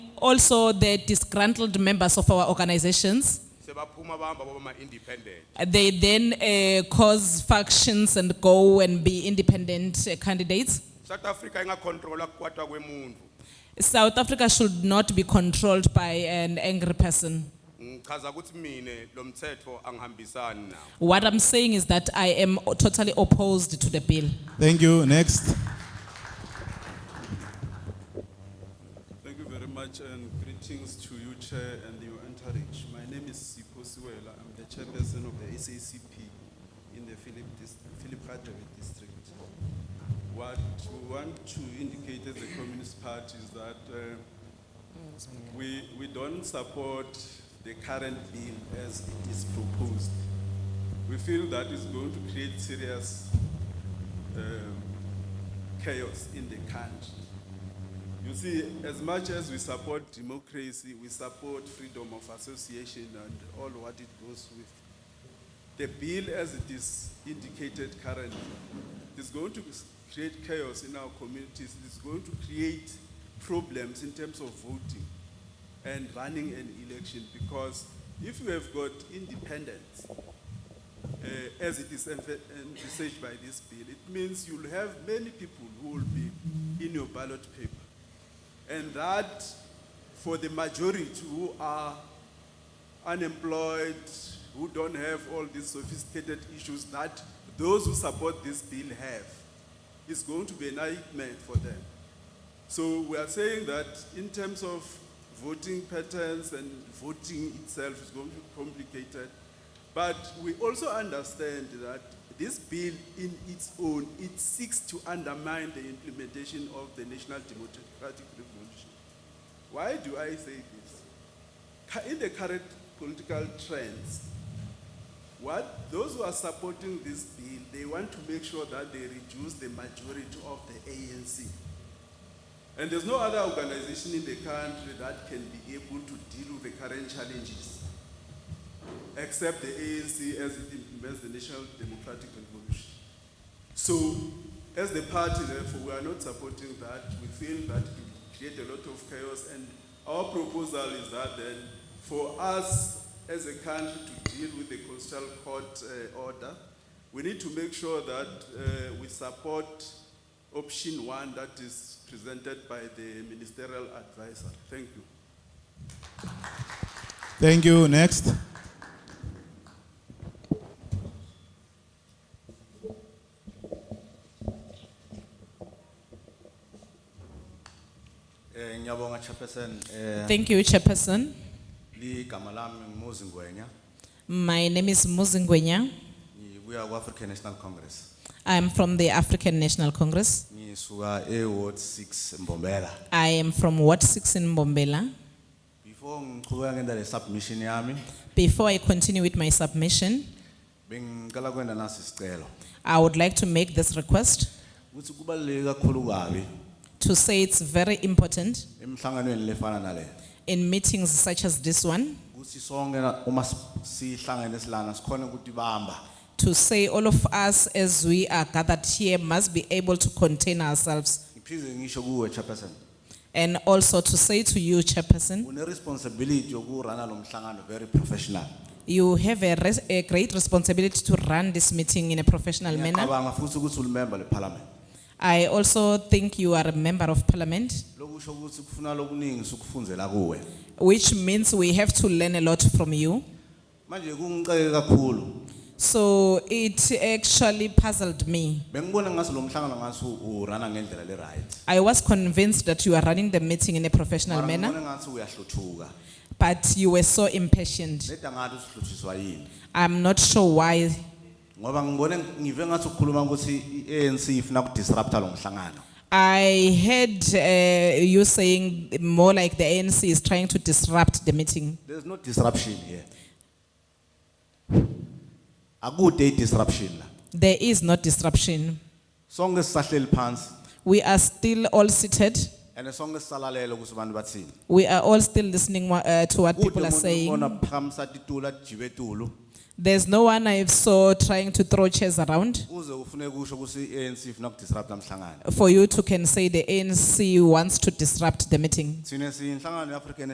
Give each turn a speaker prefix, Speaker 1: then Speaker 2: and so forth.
Speaker 1: also the disgruntled members of our organizations.
Speaker 2: sebaphuma bahamba baba ma-independent
Speaker 1: They then eh, cause factions and go and be independent eh, candidates.
Speaker 2: south africa ingakhontrola kukwatwa kwemuntu
Speaker 1: South Africa should not be controlled by an angry person.
Speaker 2: ngichaza ukuthi mine lo mthetho angihambisani nawo
Speaker 1: What I'm saying is that I am totally opposed to the bill.
Speaker 3: Thank you. Next.
Speaker 4: Thank you very much and greetings to you, Chair, and your entourage. My name is Sipho Siwela. I'm the chairperson of the SACP in the Philip, Dis- Philip Hadebe district. What we want to indicate as a Communist Party is that uh, we, we don't support the current bill as it is proposed. We feel that it's going to create serious um, chaos in the country. You see, as much as we support democracy, we support freedom of association and all what it goes with. The bill, as it is indicated currently, is going to create chaos in our communities. It's going to create problems in terms of voting and running an election because if you have got independence, uh, as it is env- envisaged by this bill, it means you'll have many people who will be in your ballot paper. And that, for the majority who are unemployed, who don't have all these sophisticated issues that those who support this bill have, is going to be a nightmare for them. So we are saying that in terms of voting patterns and voting itself is going to be complicated. But we also understand that this bill in its own, it seeks to undermine the implementation of the National Democratic Revolution. Why do I say this? Cu- In the current political trends, what those who are supporting this bill, they want to make sure that they reduce the majority of the ANC. And there's no other organization in the country that can be able to deal with the current challenges except the ANC as it implements the National Democratic Revolution. So, as the party, therefore, we are not supporting that. We feel that it will create a lot of chaos, and our proposal is that then, for us as a country to deal with the Constitutional Court uh, order, we need to make sure that uh, we support option one that is presented by the ministerial advisor. Thank you.
Speaker 3: Thank you. Next.
Speaker 5: Eh ngiyabonga Chairperson eh
Speaker 1: Thank you, Chairperson.
Speaker 5: ligama lami ngimuzi Ngwenya
Speaker 1: My name is Muzingwenya.
Speaker 5: ngibuya ku African National Congress
Speaker 1: I'm from the African National Congress.
Speaker 5: ngisuka e Ward 6 Mbombela
Speaker 1: I am from Ward 6 in Bombela.
Speaker 5: before ngichubeka ngenda le submission yami
Speaker 1: Before I continue with my submission,
Speaker 5: bengicela kwenda nasi sicelo
Speaker 1: I would like to make this request
Speaker 5: ukuthi kubaluleke kakhulu kabi
Speaker 1: to say it's very important
Speaker 5: emhlanganweni lefana nale
Speaker 1: in meetings such as this one
Speaker 5: ukuthi sonke na- uma si- sihlangene silana sikhona ukuthi bamba
Speaker 1: to say all of us as we are gathered here must be able to contain ourselves
Speaker 5: ngiphinde ngisho kuwe Chairperson
Speaker 1: and also to say to you chairperson
Speaker 5: une responsibility yokurana lo mhlangano very professional
Speaker 1: you have a, res- a great responsibility to run this meeting in a professional manner
Speaker 5: ngiyacabanga futhi ukuthi ulimember le parliament
Speaker 1: i also think you are a member of parliament
Speaker 5: lokusho ukuthi kufuna lokuningi sikufunzela kuwe
Speaker 1: which means we have to learn a lot from you
Speaker 5: manje kungiceke kakhulu
Speaker 1: so it actually puzzled me
Speaker 5: bengibona ngase lo mhlangano ngase urana ngendlela le right
Speaker 1: i was convinced that you are running the meeting in a professional manner
Speaker 5: ngase uyahluthuka
Speaker 1: But you were so impatient.
Speaker 5: leda ngathi usihluthiswa yini
Speaker 1: I'm not sure why.
Speaker 5: ngoba ngibone ngive ngathi ukukhuluma ukuthi iANC ifuna ukudisrupta lo mhlangano
Speaker 1: I heard uh, you saying more like the ANC is trying to disrupt the meeting.
Speaker 5: there's no disruption here akude i-disruption la
Speaker 1: There is no disruption.
Speaker 5: sonke sisahleli phansi
Speaker 1: We are still all seated.
Speaker 5: and sonke sisalalela ukuthi abantu bathini
Speaker 1: We are all still listening uh, to what
Speaker 5: Kude
Speaker 1: people are
Speaker 5: umuntu
Speaker 1: saying.
Speaker 5: ubona phamsa titula jibetulu
Speaker 1: There's no one I saw trying to throw chairs around
Speaker 4: uze ufune kusho ukuthi i-anc ifuna ukudisrupt namhlangano
Speaker 1: for you to can say the ANC wants to disrupt the meeting.
Speaker 4: thina siyinhlangano ye-african